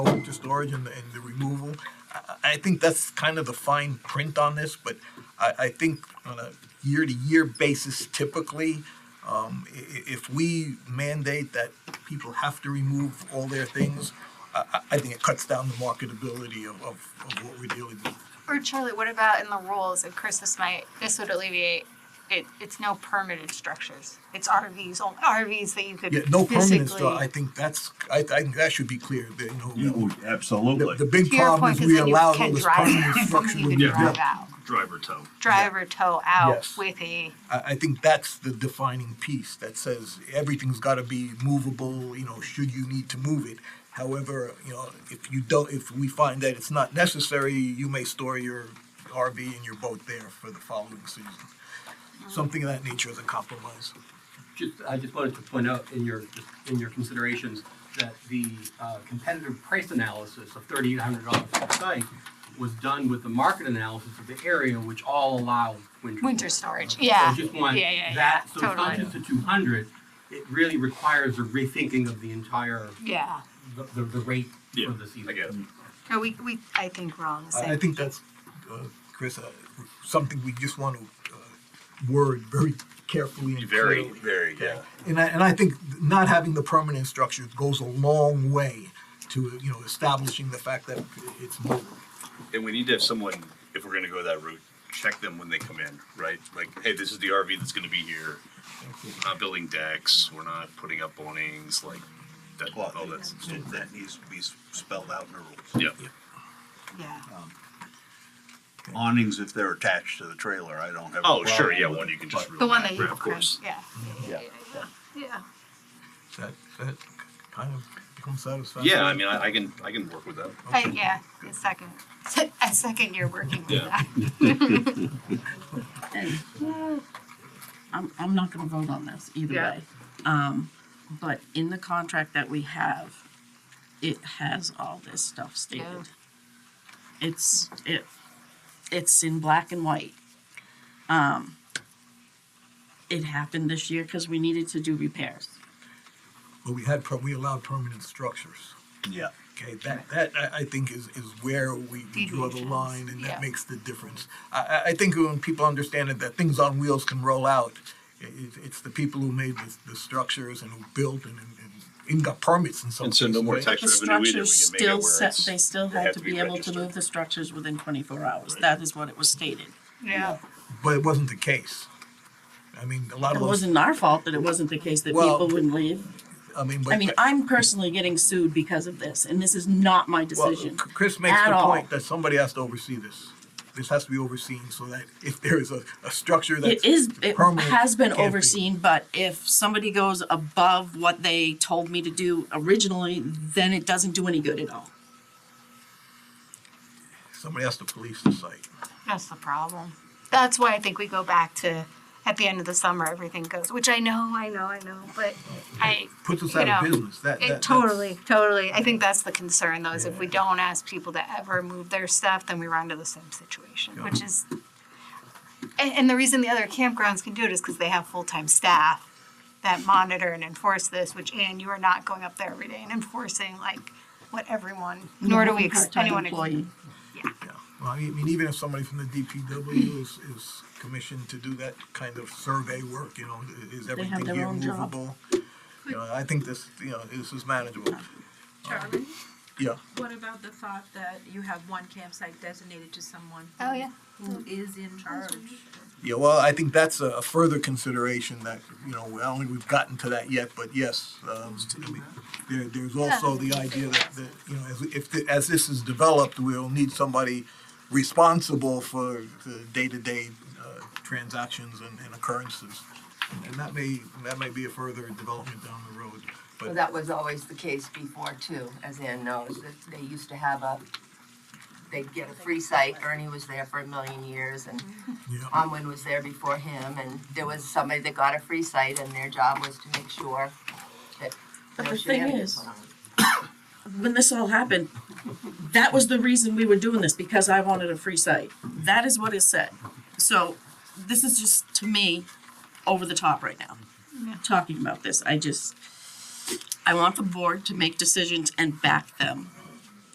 winter storage and, the- and the removal. I, I think that's kind of the fine print on this, but I, I think on a year-to-year basis typically, um, i- i- if we mandate that people have to remove all their things, I, I- I think it cuts down the marketability of, of, of what we're dealing with. Or Charlie, what about in the rules? And Chris, this might, this would alleviate, it, it's no permitted structures. It's RVs, only RVs that you could Yeah, physically. no permanent stuff, I think that's, I, I think that should be clear, that, you know, oh, You- The, the Absolutely. big To your problem point, is 'cause we then you allow can all this drive permanent it. structure. You to can be drive built. out, Driver tow. drive or tow out Yes. with a, I, I think that's the defining piece that says everything's gotta be movable, you know, should you need to move it. However, you know, if you don't, if we find that it's not necessary, you may store your RV and your boat there for the following season. Something of that nature is a compromise. Just, I just wanted to point out in your, in your considerations that the uh, competitive price analysis of thirty-eight hundred dollars per site was done with the market analysis of the area, which all allow winter. winter storage, yeah. So just want Yeah, yeah, that, yeah, so it's not totally. just the two hundred, it really requires a rethinking of the entire, Yeah, the, the, the rate Yeah, for the season. I get it. no, we, we, I think we're all on the I, I same. think that's, uh, Chris, uh, something we just want to, uh, word very carefully and Very, clearly. very, yeah. And I, and I think not having the permanent structure goes a long way to, you know, establishing the fact that it's mobile. And we need to have someone, if we're gonna go that route, check them when they come in, right? Like, hey, this is the RV that's gonna be here. We're not building decks, we're not putting up awnings, like, that, Well, all that stuff. that, that needs to be s- spelled out in the rules. Yeah, Yeah, Awnings, if they're attached to the trailer, I don't have. a oh, sure, problem yeah, with one it, you can just. but- the one that you, Of course. yeah, yeah, yeah, yeah, yeah. That, that kind of becomes satisfactory. Yeah, I mean, I, I can, I can work with that. I, yeah, a second, a second year working with Yeah. that. I'm, I'm not gonna vote on this either Yeah. way. Um, but in the contract that we have, it has all this stuff Yeah. stated. It's, it, it's in black and white. Um, it happened this year because we needed to do repairs. But we had, per- we allowed permanent structures. Yeah, Okay, that, that I, I think is, is where we we draw the Deviations, line and yeah. that makes the difference. I, I, I think when people understand it, that things on wheels can roll out, i- it, it's the people who made the, the structures and who built and, and and even got permits in some And cases. so no more right? tax The revenue either, we can structures make it still where set, it's. they still had to be able to registered. move the structures within twenty-four hours. That is what it was stated. Yeah. But it wasn't the case. I mean, a lot It of those, wasn't our fault that it wasn't the case that Well, people wouldn't leave. I mean, but. I mean, I'm personally getting sued because of this, and this is not my Well, decision. C- Chris makes at the all. point that somebody has to oversee this. This has to be overseen so that if there is a, a structure that's It is, it permanent, has been it can't be. overseen, but if somebody goes above what they told me to do originally, then it doesn't do any good at all. Somebody has to police the site. That's the problem. That's why I think we go back to at the end of the summer, everything goes, which I know, I know, I know, but I. Puts us you out of know, business. That, that It that's- totally, totally. I think that's the concern though, is if we don't ask people to ever move their stuff, then we run into the same situation, Yeah. which is. And, and the reason the other campgrounds can do it is because they have full-time staff that monitor and enforce this, which, Anne, you are not going up there every day and enforcing like what everyone, nor do we, ex- Part-time anyone. ex- employee. Yeah. Well, I mean, even if somebody from the DPW is, is commissioned to do that kind of survey work, you know, i- is everything their here own job. movable? You know, I think this, you know, this is manageable. Charlie, Yeah. what about the thought that you have one campsite designated to someone? Oh, yeah. Who is in charge? Yeah, well, I think that's a a further consideration that, you know, I don't think we've gotten to that yet, but yes. um, I mean, There, there's also the idea that, that, you know, as, if, the- as this is developed, we'll need somebody responsible for the day-to-day uh, transactions and and occurrences. And that may, that may be a further development down the road, Well, but, that was always the case before too, as Ann knows, that they used to have a, they'd get a free site, Ernie was there for a million years, and yeah, Onwin was there before him, and there was somebody that got a free site, and their job was to make sure that But no the thing shenanigans is- went on. When this all happened, that was the reason we were doing this, because I wanted a free site. That is what is said. So this is just, to me, over the top right now, talking about this. I just, I want the board to make decisions and back them.